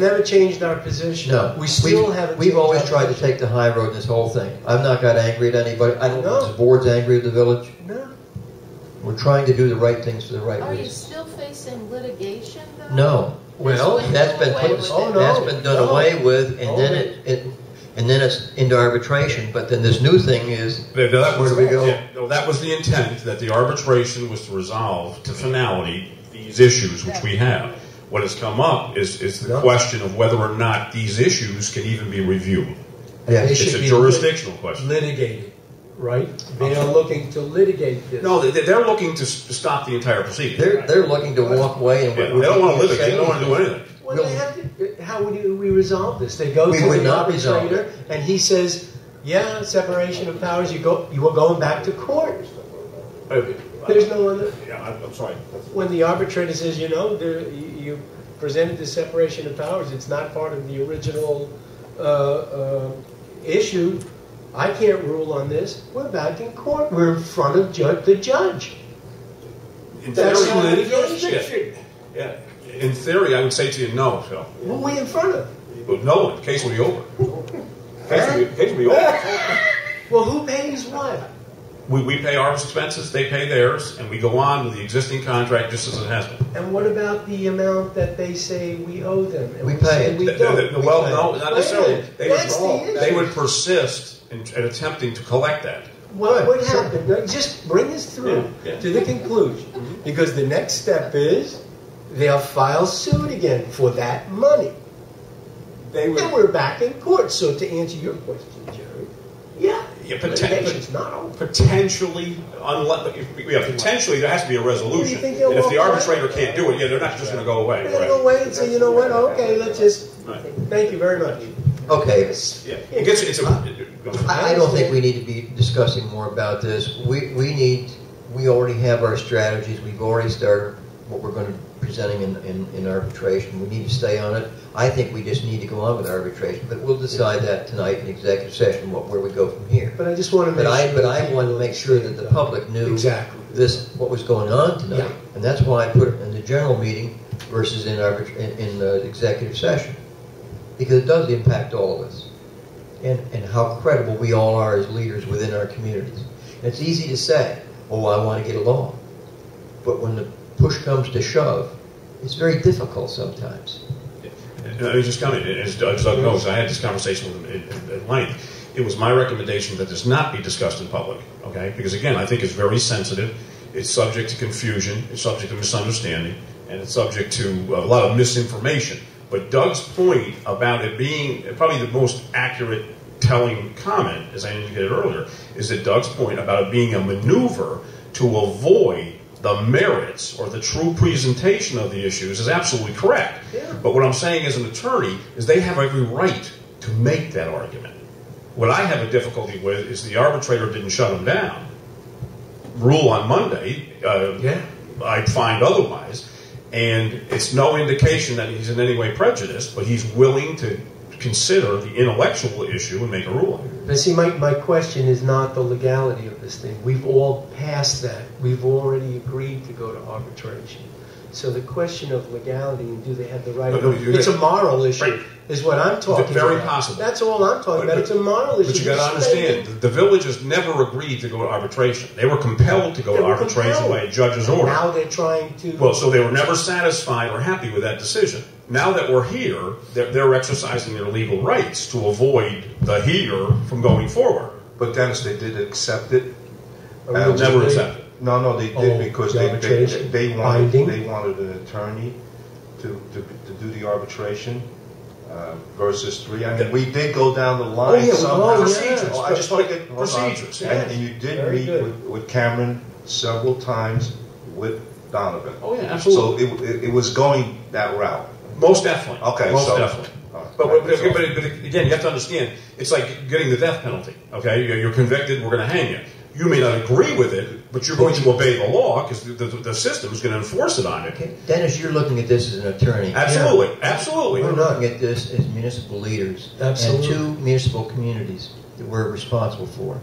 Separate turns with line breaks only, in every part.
Never changed our position.
No,
We still
we've,
haven't.
We've
changed
always
our
tried to
position.
take the high road in this whole thing. I've not got angry at anybody. I don't
No.
think the board's angry at the village.
No.
We're trying to do the right things for the right
Are you
reasons.
still facing litigation though?
No,
Well,
that's been
Away
put,
with
it.
that's been done
No.
away with, and then
No.
it, it, and then it's into arbitration. But then this new thing is
Yeah, no, that
Where
was,
do we go?
yeah, no, that was the intent, that the arbitration was to resolve to finality these issues which we have. What has come up is, is the
Yeah.
question of whether or not these issues can even be reviewed.
yeah,
They
It's
should
a
be
jurisdictional question.
litigated, right? They are looking to litigate this.
No, they, they're looking to s- stop the entire proceeding.
they're they're looking to walk away and
Yeah, they don't want to litigate, they don't want to do anything.
Well, they have to, uh, how would you- we resolve this? They go
We
to
would
the
not resolve it.
arbitrator, and he says, "Yeah, separation of powers. You go. You are going back to court. There's no other."
Yeah, I'm, I'm sorry.
When the arbitrator says, "You know, there, you you presented the separation of powers. It's not part of the original uh, uh, issue. I can't rule on this. We're back in court. We're in front of ju- the judge.
In
That's
theory,
not
yeah,
jurisdiction.
yeah. In theory, I would say to you, no, Phil.
Who are we in front of?"
But no, the case will be over. Case will be, case will be over.
Well, who pays what?
We, we pay our expenses, they pay theirs, and we go on with the existing contract just as it has been.
And what about the amount that they say we owe them? And
We pay
say
it.
We
The- the- the-
don't.
well, no, not necessarily. They would,
That's the issue.
they would persist in, in attempting to collect that.
What would happen? No, Just bring us through
Yeah, Mm-hmm. yeah.
to the conclusion. Because the next step is they'll file suit again for that money.
They
And we're back in court. So to answer your question, Jerry, yeah,
Yeah, potentially,
litigation's not over.
potentially, unle- if- yeah, potentially, there has to be a resolution.
think they'll
And if the
walk away?
arbitrators can't do it, yeah, they're not just going to go away.
We're going to
right.
go wait and say, you know what, okay, let's just,
Right.
thank you very much.
okay.
Yeah, it gets, it's a. go ahead.
I, I don't think we need to be discussing more about this. We, we need, we already have our strategies. We've already started what we're going to presenting in, in, in arbitration. We need to stay on it. I think we just need to go on with arbitration, but we'll decide that tonight in executive session, what, where we go from here.
But I just want to make
But I,
sure.
but I wanted to make sure that the public knew
Exactly.
this, what was going on tonight.
Yeah.
And that's why I put it in the general meeting versus in arbit, in, in the executive session. Because it does impact all of us. And, and how credible we all are as leaders within our communities. And it's easy to say, oh, I want to get along. But when the push comes to shove, it's very difficult sometimes.
And I Uh, was just coming, as Doug as Doug knows, I had this conversation with him at- at length. It was my recommendation that this not be discussed in public, okay? Because again, I think it's very sensitive, it's subject to confusion, it's subject to misunderstanding, and it's subject to a lot of misinformation. But Doug's point about it being probably the most accurate telling comment, as I indicated earlier, is that Doug's point about it being a maneuver to avoid the merits or the true presentation of the issues is absolutely correct.
Yeah.
But what I'm saying as an attorney is they have every right to make that argument. What I have a difficulty with is the arbitrator didn't shut them down. Rule on Monday, uh,
Yeah.
I'd find otherwise. And it's no indication that he's in any way prejudiced, but he's willing to consider the intellectual issue and make a ruling.
But see, my, my question is not the legality of this thing. We've all passed that. We've already agreed to go to arbitration. So the question of legality and do they have the right?
But no, you-
it's a moral issue,
Right.
is what I'm talking
Very
about.
possible.
That's all I'm talking about.
But-
It's a moral issue.
But you got to understand, the, the villages never agreed to go to arbitration. They were compelled to go
They
to
were
arbitration
compelled.
by a judge's
And
order.
Now they're trying to.
Well, so they were never satisfied or happy with that decision. Now that we're here, they're, they're exercising their legal rights to avoid the here from going forward.
But Dennis, they did accept it.
They'll
originally-
never accept it.
No, no, they
Oh,
did because
the
they, they,
arbitration
they wanted,
binding?
they wanted an attorney to, to, to do the arbitration uh, versus three. I mean, we did go down the
Oh,
line
yeah,
somehow.
yeah.
procedures.
Oh, I just want to get hold on.
procedures. yeah.
And, and you did
Very
meet
good.
with, with Cameron several times with Donovan.
Oh, yeah,
So
absolutely.
it, it, it was going that route.
Most definitely.
Okay,
Most
so-
definitely.
All right.
But, but,
That's all.
but, but again, you have to understand, it's like getting the death penalty. Okay, you're, you're convicted, we're going to hang you. You may not agree with it, but you're going to obey the law because the, the, the system is going to enforce it on you.
Okay, Dennis, you're looking at this as an attorney.
Absolutely, absolutely.
We're looking at this as municipal leaders
Absolutely.
and two municipal communities that we're responsible for.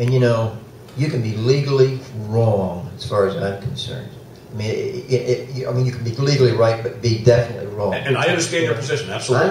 And you know, you can be legally wrong as far as I'm concerned, I mean, it, it, it, I mean, you can be legally right, but be definitely wrong.
And I understand your position, absolutely.